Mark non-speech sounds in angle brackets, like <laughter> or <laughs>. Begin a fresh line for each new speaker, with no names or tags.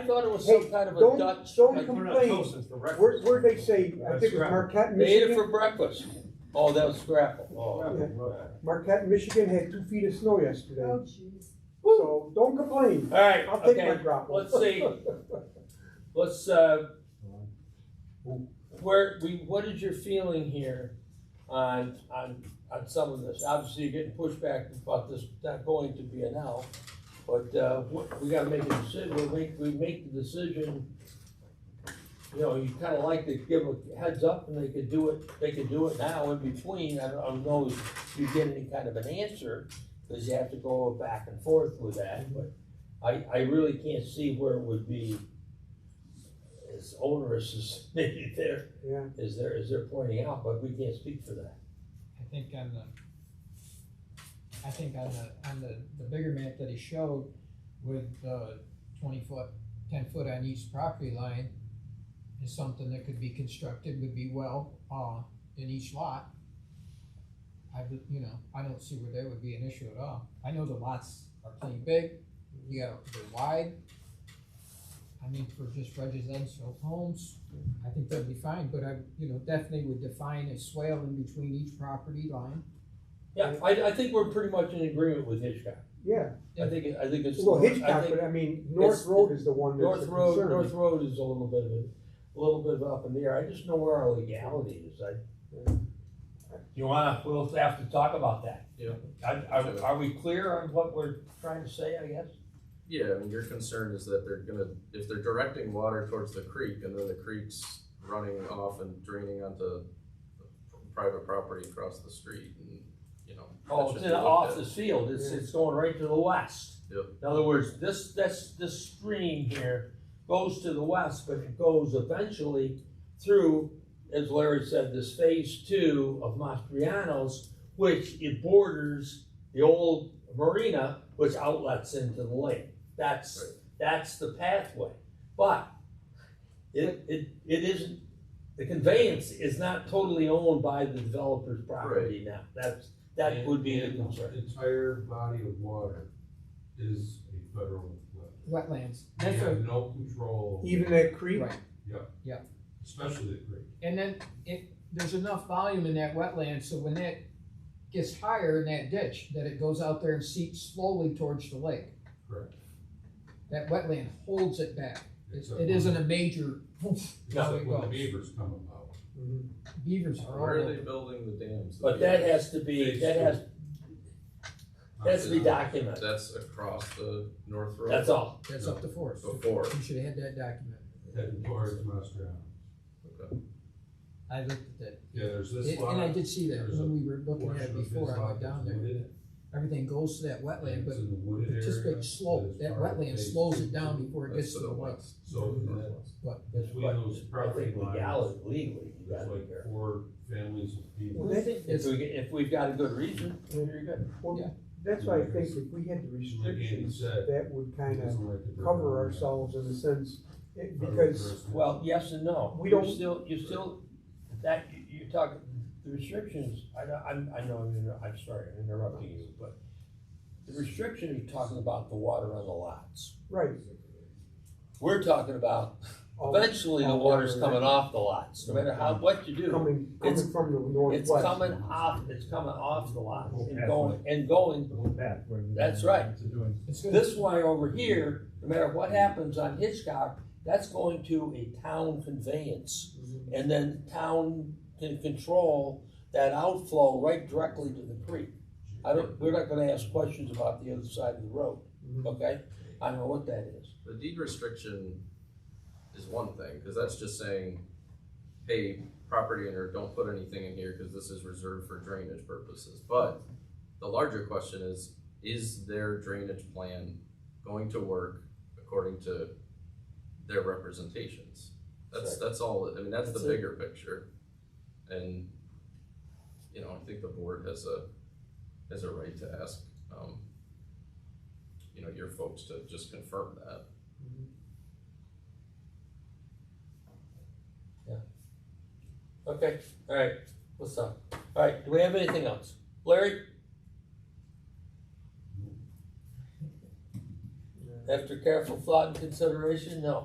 I thought it was
Hey,
some kind of a
don't-
Dutch.
don't
like,
com-
We're not
Complain.
toasting for breakfast.
Where, where'd they say, I
That's
think it was
right.
Marquette,
They ate it
Michigan?
for breakfast. Oh, that was scrapple.
Oh,
Marquette, Michigan had two feet of snow yesterday,
Oh, jeez.
so don't complain.
All right,
I'll take my
okay,
drop.
let's see. Let's, uh, where, we, what is your feeling here on, on, on some of this? Obviously, you're getting pushback about this not going to be an L, but, uh, what- we gotta make a decision, we make, we make the decision. You know, you kinda like to give a heads up and they could do it, they could do it now in between, I don't, I don't know if you get any kind of an answer, cause you have to go back and forth with that, but I, I really can't see where it would be as onerous as <laughs> maybe there
Yeah,
is there, is there pointing out, but we can't speak for that.
I think on the, I think on the, on the, the bigger map that he showed with the twenty foot, ten foot on each property line is something that could be constructed, would be well, uh, in each lot. I, would- you know, I don't see where there would be an issue at all. I know the lots are plenty big, you got, they're wide. I mean, for just residential homes, I think that'd be fine, but I, you know, definitely would define a swale in between each property line.
Yeah, I, I think we're pretty much in agreement with Hitchcock.
yeah.
I think, I think it's.
Well,
I
Hitchcock,
think
but I mean, North
it's-
Road is the one that's
North
a
Road,
concern.
North Road is a little bit of, a- a little bit of up in the air. I just know where our legality is. I. You wanna, we'll have to talk about that.
Yeah.
Are, are, are we clear on what we're trying to say, I guess?
Yeah, I mean, your concern is that they're gonna, if they're directing water towards the creek and then the creek's running off and draining onto private property across the street and, you know. that
Oh,
should
it's
be
in,
looked
off
at.
this field, it's,
Yeah.
it's going right to the west.
Yep.
In other words, this, this, this stream here goes to the west, but it goes eventually through, as Larry said, this phase two of Mastrianos, which it borders the old marina, which outlets into the lake. That's,
Right.
that's the pathway. But it, it, it isn't, the conveyance is not totally owned by the developer's property now. That's, that would be the
And-
concern.
and Entire body of water is a federal flood.
Wetlands.
We
That's
have
a,
no control,
Even that creek,
right,
especially the creek.
and then it, there's enough volume in that wetland, so when that gets higher in that ditch, that it goes out there and seeps slowly towards the lake.
Correct.
That wetland holds it back. It's,
Except
it
when-
isn't a major,
No,
Except when the beavers come about.
Mhm.
beavers are all
Where are
over.
they building the dams?
But that has to be, that has, that has to be
Uh,
documented,
That's across the North Road.
that's all.
That's up to forest.
Oh.
Before.
You should have had that document.
Heading towards Mastriano.
I looked at that.
Yeah, there's this
It- And I
lot.
did see that
There's a
when we were looking at
portion
it
of this
before, I
lot
went down
that's
there.
wooded.
Everything goes to that wetland, but
It's in the wooded
It's just
area
big slope,
is
that
part of
wetland
phase
slows
two.
it down before it
That's
gets
to
to the
the
lake.
west.
So that-
Northwest.
that's why those
I
property
think
lines,
legality, legally, you
there's
gotta be
like
careful.
four families of people.
Well, that-
If we, if we've got a good reason, then you're good.
Yeah.
well, that's why I think
Because-
if we had the
Like Andy
restrictions,
uh,
said.
that would kinda
doesn't like the
cover
river.
ourselves in a sense, it-
Federal
because,
jurisdiction.
Well, yes and no.
We
You're
don't-
Still, you still, that, you- you talk, the restrictions, I, know- I'm, I know, I'm, inter- I'm sorry, I'm interrupting you, but the restriction, you're talking about the water on the lots.
right.
We're talking about, Oh,
all
eventually the
all
water's
water
coming off the lots, no matter how, what you do.
Coming,
It's-
coming from the
It's
northwest.
coming off, it's coming off the lot and going, and going, that's right.
It's gonna,
This way over here, no matter what happens on Hitchcock, that's going to a town conveyance.
Mhm.
And then town can control that outflow right directly to the creek. I don't, we're not gonna ask questions about the other side of the road,
Mhm.
okay? I know what that is.
The deed restriction is one thing, because that's just saying, hey, property owner, don't put anything in here because this is reserved for drainage purposes. But the larger question is, is their drainage plan going to work according to their representations? That's, that's all, I mean, that's the
That's it.
bigger picture. And, you know, I think the board has a, has a right to ask, um, you know, your folks to just confirm that.
Okay, all right, what's up? All right, do we have anything else? Larry? After careful thought and consideration, no.